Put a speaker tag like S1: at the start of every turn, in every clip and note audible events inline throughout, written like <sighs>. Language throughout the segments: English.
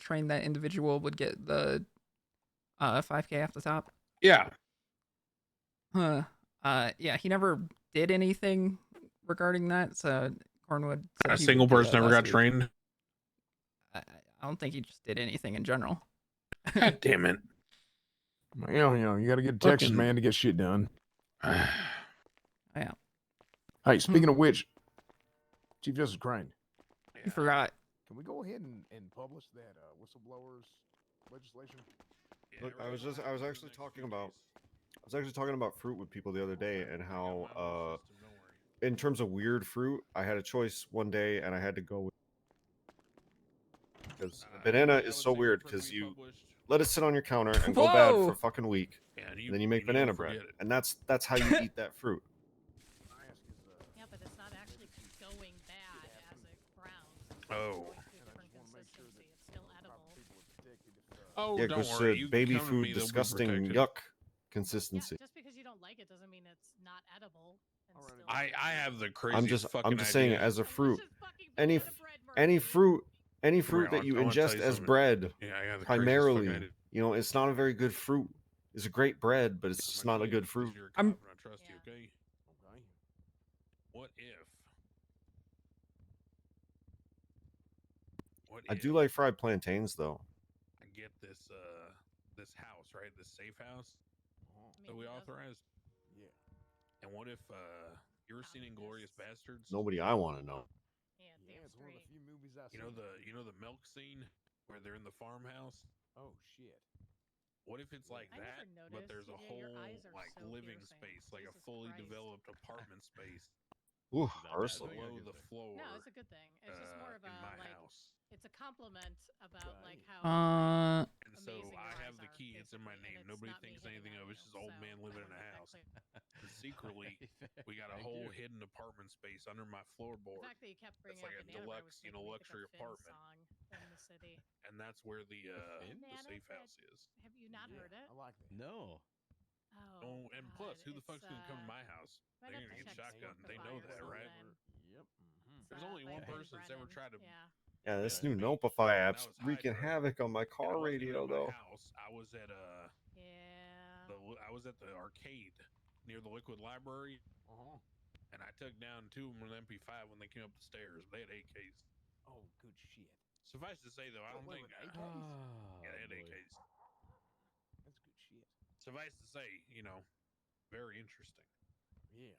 S1: train that individual would get the uh 5k off the top.
S2: Yeah.
S1: Huh. Uh yeah, he never did anything regarding that, so Cornwood said
S2: A
S1: he
S2: single
S1: would do
S2: person
S1: that
S2: ever
S1: last
S2: got
S1: week.
S2: trained. <laughs>
S1: I, I- I don't think he just did anything in general.
S2: God damn it. <sighs>
S3: You know, you know, you got to get to Texas,
S2: Fucking-
S3: man, to get shit done.
S1: Yeah.
S3: Hey, speaking of which, Chief Justice Crane,
S1: He forgot.
S3: can we go ahead and, and publish that uh, whistleblowers legislation?
S4: Look, I was just I was actually talking about I was actually talking about fruit with people the
S2: Oh,
S4: other day and how uh in terms of weird fruit, I had a choice one day and I had to go with because a banana is so weird because you let it sit on your counter and go bad for
S1: Whoa!
S4: a fucking week,
S2: Yeah,
S4: and then you make banana bread, and that's that's how you eat that fruit.
S3: I ask is, uh,
S5: Yeah, but it's not actually going bad as it browns. It's just
S2: Oh.
S5: going through
S3: and I
S5: different
S3: just want to make sure that
S5: consistency. It's
S3: the
S5: still
S3: proper
S5: edible.
S3: people are protected if, uh,
S2: <laughs> Oh,
S4: yeah,
S2: don't
S4: because
S2: worry.
S4: uh,
S2: you
S4: baby
S2: come to me,
S4: food,
S2: they'll be
S4: disgusting,
S2: protected.
S4: yuck
S2: <laughs>
S5: Yeah,
S4: consistency.
S5: just because you don't like it doesn't mean it's not edible. and
S3: Alrighty.
S5: still
S2: I I
S5: edible.
S2: have the crazy.
S4: I'm just I'm just saying, as a
S5: Delicious
S4: fruit,
S5: fucking
S4: any f-
S5: banana bread,
S4: any
S5: Murphy.
S4: fruit, any
S2: Come here,
S4: fruit
S2: I
S4: that
S2: wanna-
S4: you
S2: I wanna tell
S4: ingest
S2: you
S4: as
S2: something.
S4: bread,
S2: yeah, I got the craziest fucking
S4: primarily,
S2: idea.
S4: you know, it's not a very good fruit. It's a great bread, but it's just
S2: I'm
S4: not a
S2: idea,
S4: good
S2: 'cause
S4: fruit.
S2: you're a
S1: I'm-
S2: cop and I trust you, okay?
S3: okay.
S2: What if? What
S4: I do
S2: if
S4: like fried plantains though.
S2: I get this uh this house right, this safe house
S3: Uh-huh.
S5: I mean,
S2: that we
S5: who doesn't?
S2: authorized.
S3: Yeah.
S2: And what if uh you ever seen Inglorious Bastards?
S4: Nobody I want to know.
S5: Yeah,
S3: Yeah,
S5: damn
S3: it's one of the
S5: straight.
S3: few movies I
S2: You know the you know the milk scene where they're in the farmhouse.
S3: Oh shit.
S2: What if it's like
S5: I never
S2: that, but
S5: noticed.
S2: there's a
S5: Yeah, your
S2: whole
S5: eyes are
S2: like
S5: so
S2: living
S5: piercing.
S2: space, like a
S5: Jesus
S2: fully
S5: Christ.
S2: developed apartment space
S5: <laughs>
S4: Ooh,
S6: Not bad,
S4: Ursula.
S6: though, yeah.
S2: below
S6: get
S2: the
S6: that.
S2: floor?
S5: No, it's a good thing. It's just more
S2: uh,
S5: of a
S2: in my
S5: like
S2: house.
S5: it's a compliment about like how
S1: Uh
S2: And so
S5: amazing
S2: I
S5: your
S2: have
S5: eyes
S2: the
S5: are,
S2: key. It's in my name.
S5: basically, and it's
S2: Nobody
S5: not me
S2: thinks
S5: hitting
S2: anything
S5: on
S2: of it. It's
S5: you,
S2: just old
S5: so
S2: man
S5: I
S2: living in a
S5: wanna <laughs> make that
S2: house.
S5: clear.
S3: <laughs>
S2: secretly, We got a
S6: Thank
S2: whole
S6: you.
S2: hidden apartment space under my
S5: The
S2: floorboard,
S5: fact that you kept bringing
S2: like a
S5: up banana bread
S2: deluxe,
S5: was
S2: you know,
S5: making me
S2: luxury
S5: think of Finn's
S2: apartment.
S5: song in the city.
S2: and that's where the uh,
S6: Finn?
S2: the
S5: Banana
S2: safe
S5: bread.
S2: house is.
S5: Have you not
S3: Yeah,
S5: heard it?
S3: I like that.
S2: <laughs>
S6: No.
S5: Oh,
S2: Oh, and plus,
S5: God,
S2: who the fuck's
S5: it's,
S2: gonna come to my
S5: uh,
S2: house?
S5: might
S2: They're gonna
S5: have
S2: get
S5: to check
S2: shotgun.
S5: Spotify
S2: They
S5: or
S2: know that, right?
S5: something.
S3: Yep. mhm.
S5: It's,
S2: There's
S5: uh,
S2: only
S5: by
S2: one
S5: Eddie
S2: person that's ever
S5: Brennan.
S2: tried to-
S5: Yeah.
S4: Yeah, this
S2: Yeah,
S4: new
S2: maybe.
S4: Notify app's
S2: That was
S4: wreaking
S2: Hydra.
S4: havoc on my
S2: And I
S4: car
S2: wasn't even
S4: radio
S2: at my
S4: though.
S2: House. I was at uh,
S5: Yeah.
S2: the,
S5: Oh.
S2: li- I was at the arcade near the Liquid Library,
S3: Uh-huh.
S2: and I took down two of them with MP5 when they came up the stairs. They had AKs.
S3: Oh, good shit.
S2: Suffice to say, though, I
S3: Oh,
S2: don't
S3: wait,
S2: think I,
S3: wait, AK? Ah,
S2: yeah, they had AKs.
S3: That's good shit.
S2: Suffice to say, you know, very interesting.
S3: Yeah.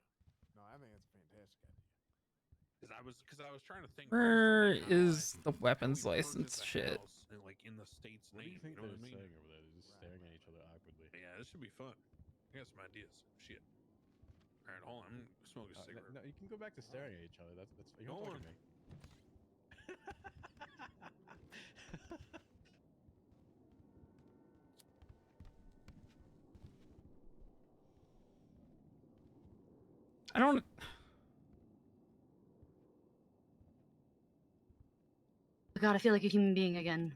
S3: No, I think that's a fantastic idea.
S2: Because I was because I was trying to think.
S1: where
S2: first, like, how do
S1: is
S2: I-
S1: the
S2: how do
S1: weapons
S2: we purchase
S1: license
S2: a
S1: shit?
S2: house in, like in the state's
S6: What do
S2: name,
S6: you think
S2: know what
S6: they're
S2: I mean?
S6: saying over there? They're just
S3: Right,
S6: staring at
S3: right.
S6: each other awkwardly.
S2: Yeah, this should be fun. I got some ideas. Shit. All right, hold on. I'm gonna smoke a
S6: Uh,
S2: cigarette.
S6: no, no, you can go back to staring at each other. That's that's you're
S2: Go
S6: not talking
S2: on.
S6: to me.
S1: I don't
S7: God, I feel like a human being again.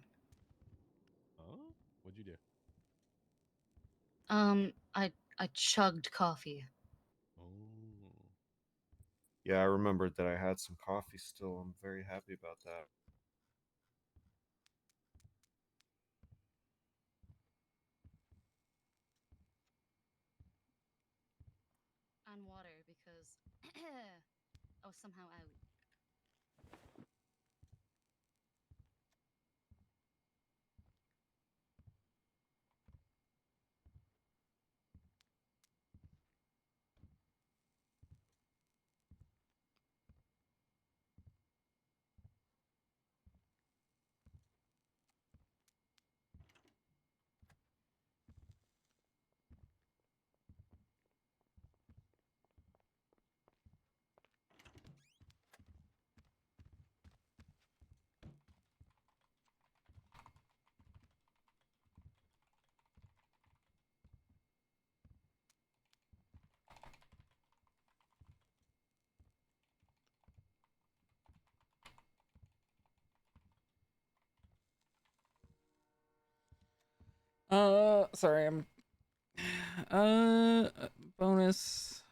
S6: Huh? What'd you do?
S7: Um, I I chugged coffee.
S6: Oh.
S4: Yeah, I remembered that I had some coffee still. I'm very happy about that.
S7: And water because <clears throat> I was somehow out.
S1: <sighs> uh sorry, I'm uh bonus